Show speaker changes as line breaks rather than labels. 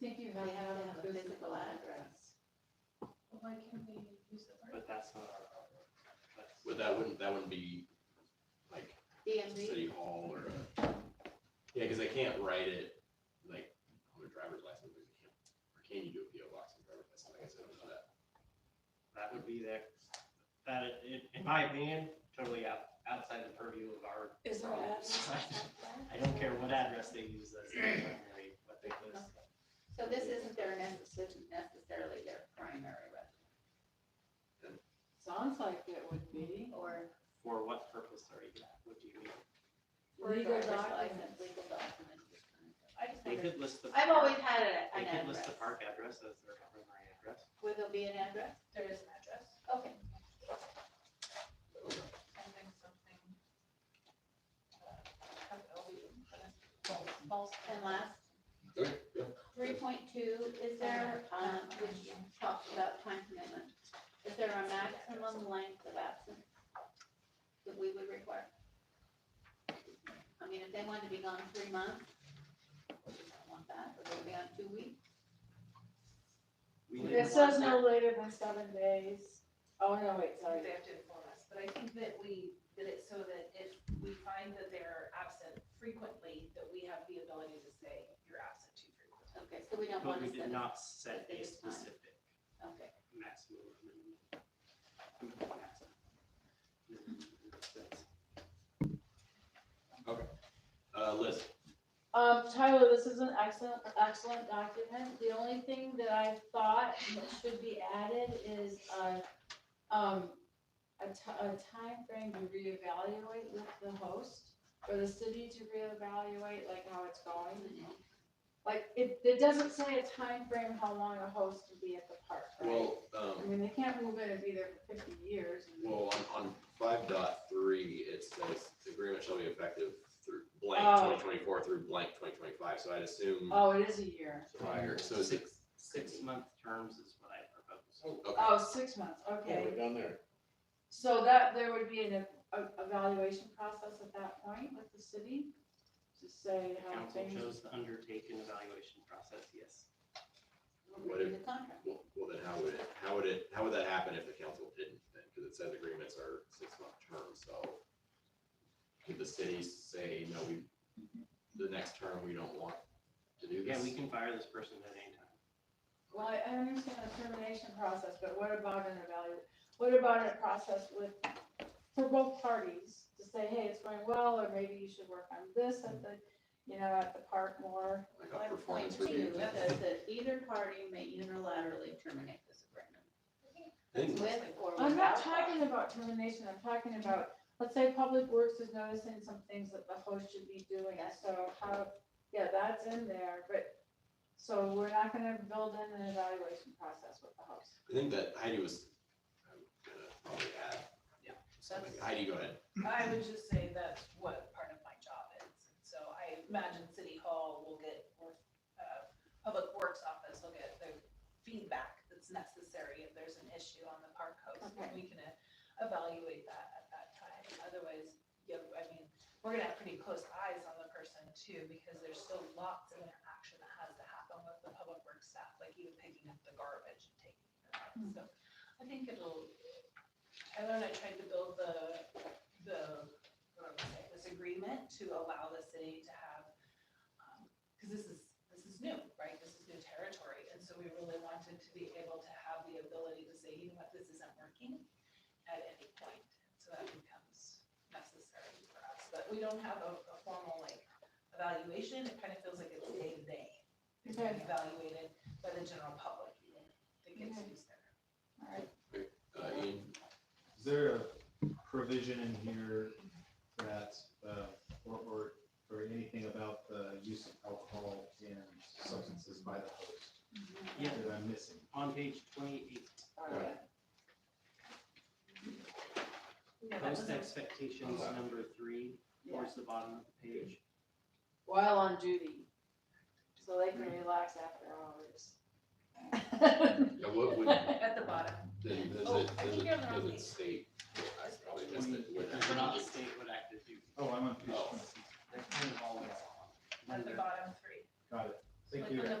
think you have to have a physical address.
Why can't we use the word?
But that's not our problem. That's-
But that wouldn't, that wouldn't be like
DMV,
city hall or a, yeah, cause I can't write it like on a driver's license, but you can't, or can you do a PO box on a driver's license? Like I said, I don't know that.
That would be that, that, in, in my opinion, totally out, outside the purview of our.
Is there an address?
I don't care what address they use as their primary, what they list.
so this isn't their necessarily, necessarily their primary residence,
Sounds like it would be.
or
For what purpose are you, what do you mean?
Legal
driver's license, legal
documents.
documents. this kind of stuff. I just,
They
never-
could list the.
I've
park-
always had a-
They
an
could list
address.
the park address as their primary address.
Would there be an address?
There is an address.
Okay.
And then something.
uh,
Have Elby
E,
put us false, false.
And last,
Okay, yeah.
three point two, is there, um, which talks about time commitment, is there a maximum length of absence that we would require? I mean, if they wanted to be gone three months, we don't want that, or they'd be on two weeks,
We
It
didn't
says
want
no later than seven days. Oh, no, wait, sorry.
They have to inform us, but I think that we did it so that if we find that they're absent frequently, that we have the ability to say, you're absent too frequently.
okay, so we
that,
don't
But
want
we
to
did
send,
not set a
It's fine.
specific
okay,
maximum. or minimum. That's-
Uh, Liz,
Um, Tyler, this is an excellent, excellent document. The only thing that I thought that should be added is a, um, a ti- a timeframe to reevaluate with the host or the city to reevaluate like how it's going. Like, it, it doesn't say a time frame how long a host would be at the park, right?
well, um,
I mean, they can't move in and be there for fifty years. and-
Well, on, on five dot three, it says the agreement shall be effective through blank
Oh.
twenty twenty-four through blank twenty twenty-five, so I'd assume
Oh, it is a year.
prior, so is it,
Six, six month terms is what I propose.
okay,
Oh, six months,
Yeah,
okay.
we're done there.
So that, there would be an ev- a- evaluation process at that point with the city to say how
Council
things.
chose to undertake an evaluation process, yes.
we'll read the contract.
well, well, then how would it, how would it, how would that happen if the council didn't then? Cause it says agreements are six-month terms, so could the city say, no, we, the next term, we don't want to do this?
Yeah, we can fire this person at any time.
Well, I I understand the termination process, but what about an evalu, what about a process with, for both parties? To say, hey, it's going well, or maybe you should work on this at the, you know, at the park more.
Like
My
a
point
performance
two
review.
is that either party may unilaterally terminate this agreement,
I think
with or without.
I'm not talking about termination, I'm talking about, let's say Public Works is noticing some things that the host should be doing, so how, yeah, that's in there, but, so we're not gonna build in an evaluation process with the host.
I think that Heidi was, I'm gonna probably add.
Yeah,
something.
that's-
Heidi, go ahead.
I would just say that's what part of my job is, so I imagine City Hall will get, or, uh, Public Works Office will get the feedback that's necessary if there's an issue on the park host, and we can uh, evaluate that at that time, otherwise, you, I mean, we're gonna have pretty close eyes on the person too, because there's still lots of interaction that has to happen with the Public Works staff, like even picking up the garbage and taking it out, so I think it'll, Tyler and I tried to build the the, what do I say, this agreement to allow the city to have, because this is, this is new, right? This is new territory, and so we really wanted to be able to have the ability to say, you know what, this isn't working at any point. So that becomes necessary for us, but we don't have a, a formal like evaluation, it kind of feels like it's day to day. It's being evaluated by the general public, you know, that gets used there.
Alright,
Uh, Ian,
Is there a provision in here that, uh, or, or, or anything about the use of alcohol and substances by the host
Yeah,
that I'm missing?
on page twenty-eight,
alright.
Yeah, that
post
doesn't-
expectations number three, towards the bottom of the page.
While on duty, so they can relax after hours.
yeah, what would,
At the bottom.
Then does
Oh,
it,
I
does
think
it,
you're on the wrong
does it
page.
state, I probably missed it,
It
what
does not state what active duty,
Oh, I'm on page
Oh.
twenty-six.
that's kind of all.
At the bottom three.
Got it. Thank
Like
you.
on the